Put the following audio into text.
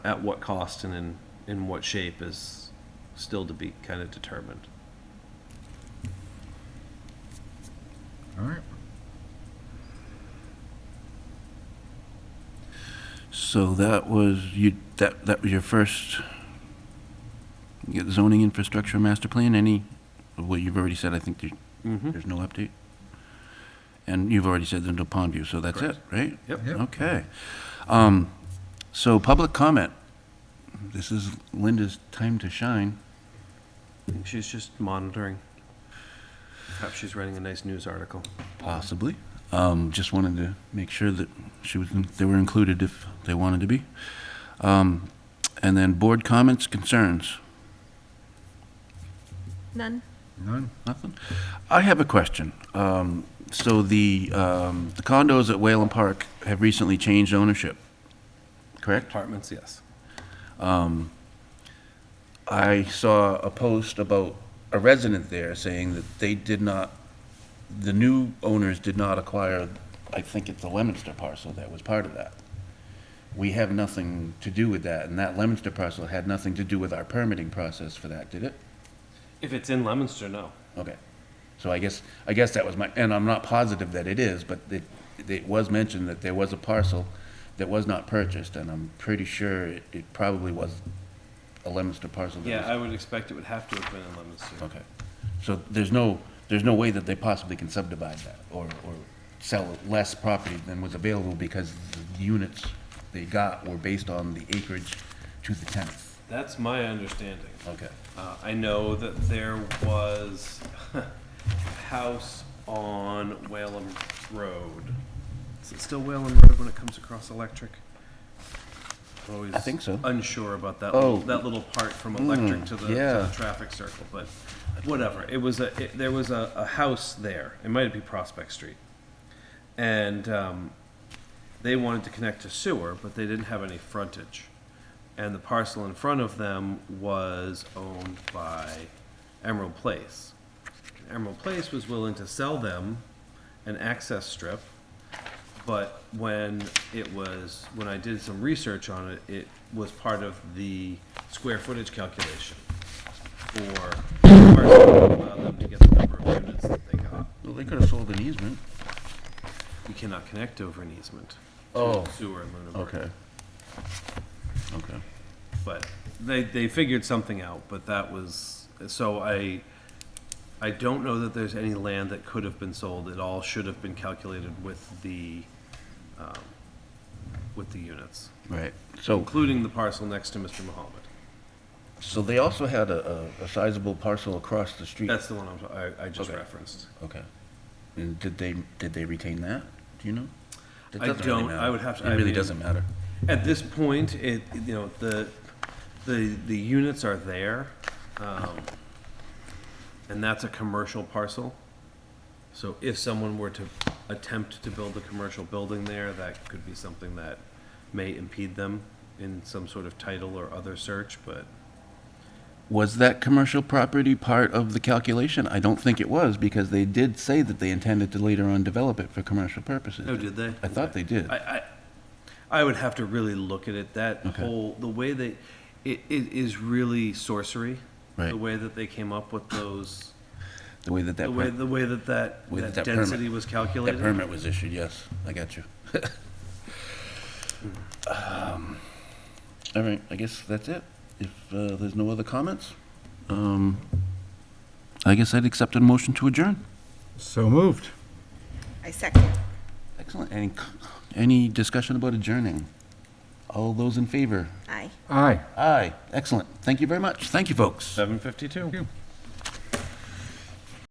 at what cost and in, in what shape is still to be kind of determined. All right. So that was you, that, that was your first you got zoning infrastructure master plan, any, of what you've already said, I think there, Mm-hmm. there's no update? And you've already said there's no pond view, so that's it, right? Yep. Yep. Okay. Um, so public comment. This is Linda's time to shine. I think she's just monitoring. Perhaps she's writing a nice news article. Possibly. Um, just wanted to make sure that she was, they were included if they wanted to be. Um, and then board comments, concerns, None. None? nothing. I have a question. Um, so the, um, the condos at Whalen Park have recently changed ownership, correct? Apartments, yes. I saw a post about a resident there saying that they did not, the new owners did not acquire, I think it's the Lemonster parcel that was part of that. We have nothing to do with that, and that Lemonster parcel had nothing to do with our permitting process for that, did it? If it's in Lemonster, no. Okay. So I guess, I guess that was my, and I'm not positive that it is, but it, it was mentioned that there was a parcel that was not purchased, and I'm pretty sure it, it probably was a Lemonster parcel that was. Yeah, I would expect it would have to have been in Lemonster. Okay. So there's no, there's no way that they possibly can subdivide that or, or sell less property than was available because the units they got were based on the acreage to the tenth. That's my understanding. Okay. Uh, I know that there was a house on Whalum Road. Is it still Whalum Road when it comes across Electric? I'm Always I think so. Unsure about that. Oh. Little, that little part from Electric Mm, to, the, to yeah. the traffic circle, but whatever. It was a it, there was a, a house there. It might be Prospect Street, and um, they wanted to connect to sewer, but they didn't have any frontage. And the parcel in front of them was owned by Emerald Place. Emerald Place was willing to sell them an access strip, but when it was, when I did some research on it, it was part of the square footage calculation for the parcel to allow them to get the number of units that they got. Well, they could have sold an easement. You cannot connect over an easement Oh. to sewer in Lunenburg. Okay. but they they figured something out. But that was so I I don't know that there's any land that could have been sold. It all should have been calculated with the um, with the units, Right. So, including the parcel next to Mr. Muhammad. so they also had a, a a sizable parcel across the street. That's the one I'm, I, I just Okay. referenced. Okay. And did they, did they retain that? Do you know? That I doesn't really don't. I matter. would have to- It I really mean- doesn't matter. At this point, it you know the the the units are there, um, and that's a commercial parcel. So if someone were to attempt to build a commercial building there, that could be something that may impede them in some sort of title or other search. But Was that commercial property part of the calculation? I don't think it was, because they did say that they intended to later on develop it for commercial purposes. oh, did they? I thought they did. I, I, I would have to really look at it. That Okay. whole the way they, it, it is really sorcery. The Right. way that they came up with those. The way that that, The way, per- the way that that, Way that that that permit- density was that calculated? permit was issued, yes, I got you. Um, All right, I guess that's it. If uh, there's no other comments, um, I guess I'd accept a motion to adjourn. So moved. I second. Excellent. Any, c- any discussion about adjourning? All those in favor? Aye. Aye. Aye, excellent. Thank you very much. Thank you, folks. Seven fifty-two.